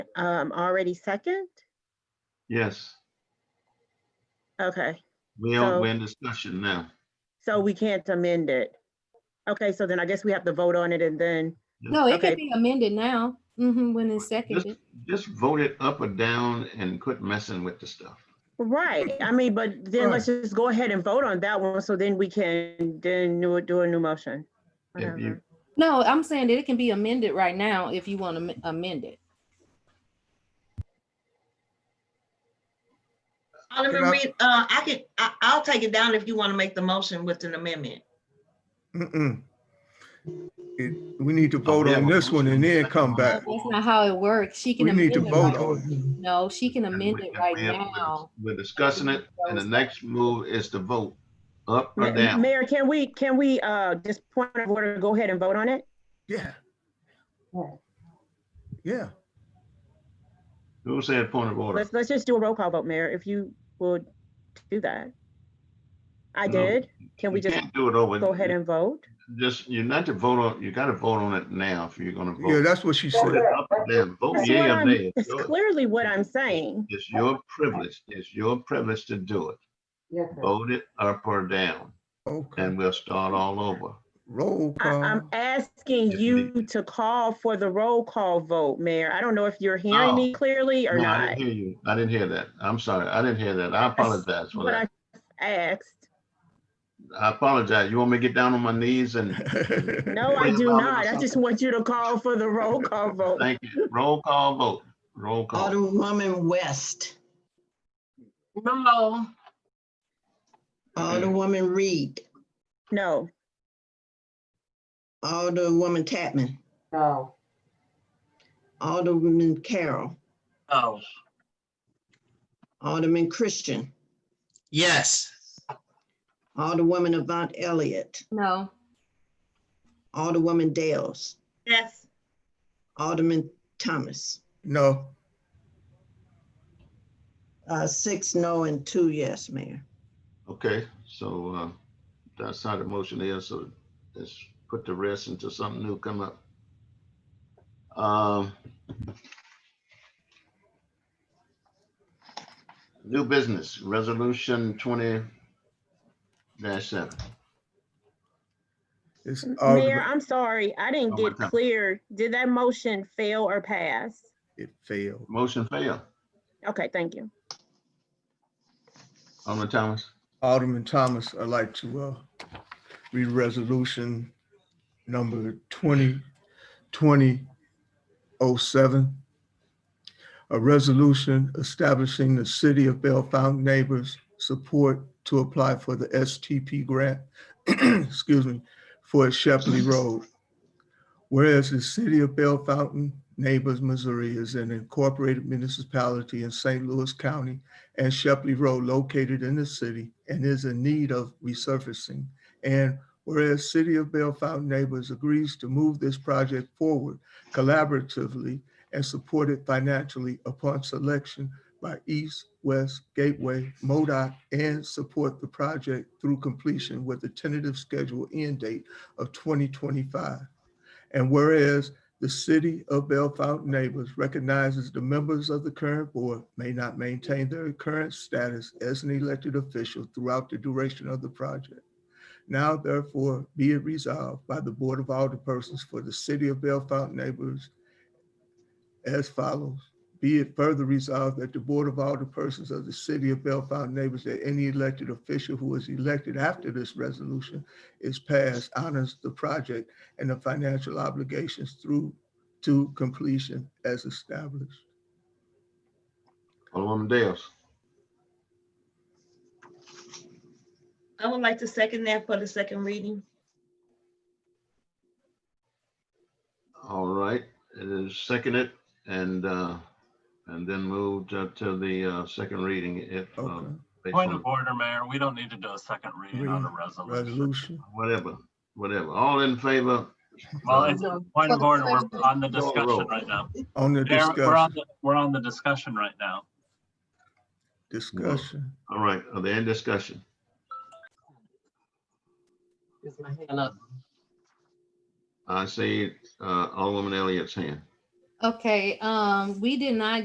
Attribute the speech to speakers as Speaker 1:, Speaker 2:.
Speaker 1: um, already second?
Speaker 2: Yes,
Speaker 1: Okay,
Speaker 2: we are,
Speaker 1: So-
Speaker 2: we're in discussion now.
Speaker 1: so we can't amend it. Okay, so then I guess we have to vote on it and then,
Speaker 3: No, it
Speaker 1: Okay.
Speaker 3: could be amended now, mhm, when
Speaker 2: Just,
Speaker 3: it's seconded.
Speaker 2: just vote it up or down and quit messing with the stuff.
Speaker 1: right, I mean, but then let's just go ahead and vote on that one, so then we can, then do a- do a new motion.
Speaker 2: If you-
Speaker 1: Whatever.
Speaker 3: No, I'm saying that it can be amended right now if you want to amend it.
Speaker 4: Can
Speaker 5: Alderman
Speaker 4: I-
Speaker 5: Reed, uh, I can, I, I'll take it down if you want to make the motion with an amendment.
Speaker 4: Mm-mm. It- We need to vote
Speaker 2: We have
Speaker 4: on
Speaker 2: a
Speaker 4: this one
Speaker 2: motion
Speaker 4: and then
Speaker 2: a second
Speaker 4: come
Speaker 2: on
Speaker 4: back.
Speaker 2: the
Speaker 3: That's
Speaker 2: floor,
Speaker 3: not how it works. She can.
Speaker 4: We need to
Speaker 3: amend it
Speaker 4: vote
Speaker 3: right-
Speaker 4: on,
Speaker 3: No, she can
Speaker 2: and
Speaker 3: amend
Speaker 2: we-
Speaker 3: it
Speaker 2: and
Speaker 3: right
Speaker 2: we have- we're dis-
Speaker 3: now.
Speaker 2: We're discussing it, and the next move is to vote up or
Speaker 1: Ma-
Speaker 2: down.
Speaker 1: Mayor, can we, can we, uh, just point of order, go ahead and vote on it?
Speaker 4: yeah. Yeah,
Speaker 2: Who said point of order?
Speaker 1: Let's, let's just do a roll call vote, Mayor, if you would do that. I
Speaker 2: No,
Speaker 1: did. Can we
Speaker 2: You
Speaker 1: just
Speaker 2: can't Do it over.
Speaker 1: go ahead and vote?
Speaker 2: Just, you're not to vote on, you gotta vote on it now if you're gonna
Speaker 4: yeah,
Speaker 2: vote.
Speaker 4: that's what she
Speaker 2: Vote
Speaker 4: said.
Speaker 2: it up or down. Vote
Speaker 1: That's what
Speaker 2: yea or
Speaker 1: I'm,
Speaker 2: nay.
Speaker 1: that's clearly what I'm saying.
Speaker 2: It's your privilege, it's your privilege to do it. Vote it up or down,
Speaker 4: Okay,
Speaker 2: and we'll start all over.
Speaker 4: roll
Speaker 1: I,
Speaker 4: call.
Speaker 1: I'm asking
Speaker 2: Yes,
Speaker 1: you to call for the roll call vote, Mayor. I don't know if you're
Speaker 2: Oh.
Speaker 1: hearing me clearly or
Speaker 2: No, I
Speaker 1: not,
Speaker 2: didn't hear you. I didn't hear that. I'm sorry. I didn't hear that. I apologize for
Speaker 1: but I
Speaker 2: that.
Speaker 1: asked.
Speaker 2: I apologize. You want me to get down on my knees and
Speaker 1: No, I
Speaker 2: Wait,
Speaker 1: do
Speaker 2: Robert,
Speaker 1: not. I just
Speaker 2: something.
Speaker 1: want you to call for the roll call vote.
Speaker 2: thank you. Roll call vote. Roll call.
Speaker 6: Alderwoman West,
Speaker 5: No.
Speaker 6: Alderwoman Reed,
Speaker 1: No,
Speaker 6: Alderwoman Chapman. No. Alderman Carroll,
Speaker 5: Oh,
Speaker 6: Alderman Christian,
Speaker 7: Yes.
Speaker 6: Alderwoman Avant Elliott,
Speaker 3: No,
Speaker 6: Alderwoman Dales,
Speaker 5: yes.
Speaker 6: Alderman Thomas.
Speaker 4: No,
Speaker 6: Uh, six no and two yes, Mayor.
Speaker 2: Okay, so uh, that's how the motion is. So let's put the rest until something new come up. Um, New business, resolution twenty dash seven.
Speaker 4: it's
Speaker 1: Mayor,
Speaker 4: Alderman,
Speaker 1: I'm sorry. I didn't
Speaker 2: Oh,
Speaker 1: get
Speaker 2: my God.
Speaker 1: clear. Did that motion fail or pass?
Speaker 4: it failed.
Speaker 2: Motion failed.
Speaker 1: Okay, thank you.
Speaker 2: Alderman Thomas?
Speaker 4: Alderman Thomas, I'd like to uh, read resolution number 2020-07. A resolution establishing the City of Belle Fountain Neighbors Support to apply for the STP grant, excuse me, for Shepley Road. Whereas the City of Belle Fountain Neighbors, Missouri is an incorporated municipality in St. Louis County and Shepley Road located in the city and is in need of resurfacing. And whereas City of Belle Fountain Neighbors agrees to move this project forward collaboratively and support it financially upon selection by East, West, Gateway, MODOC, and support the project through completion with a tentative schedule end date of 2025. And whereas the City of Belle Fountain Neighbors recognizes the members of the current board may not maintain their current status as an elected official throughout the duration of the project. Now therefore be it resolved by the Board of Alderpersons for the City of Belle Fountain Neighbors as follows. Be it further resolved that the Board of Alderpersons of the City of Belle Fountain Neighbors that any elected official who is elected after this resolution is passed honors the project and the financial obligations through to completion as established.
Speaker 2: Alderman Dales?
Speaker 5: I would like to second that for the second reading.
Speaker 2: All right, it is seconded and, uh, and then moved uh, to the, uh, second reading if, uh,
Speaker 4: Okay,
Speaker 2: based
Speaker 8: Point
Speaker 2: on
Speaker 8: of order, Mayor, we don't need to do a second reading on a resolution.
Speaker 4: resolution.
Speaker 2: whatever, whatever. All in favor?
Speaker 8: Well, it's a point of order, we're on the
Speaker 2: Roll, roll.
Speaker 8: discussion right now.
Speaker 4: On the
Speaker 8: Mayor, We're on,
Speaker 4: discussion,
Speaker 8: the- we're on the discussion right now.
Speaker 4: discussion.
Speaker 2: All right, are there any discussion? I see, uh, Alderman Elliott's hand.
Speaker 3: Okay, um, we did not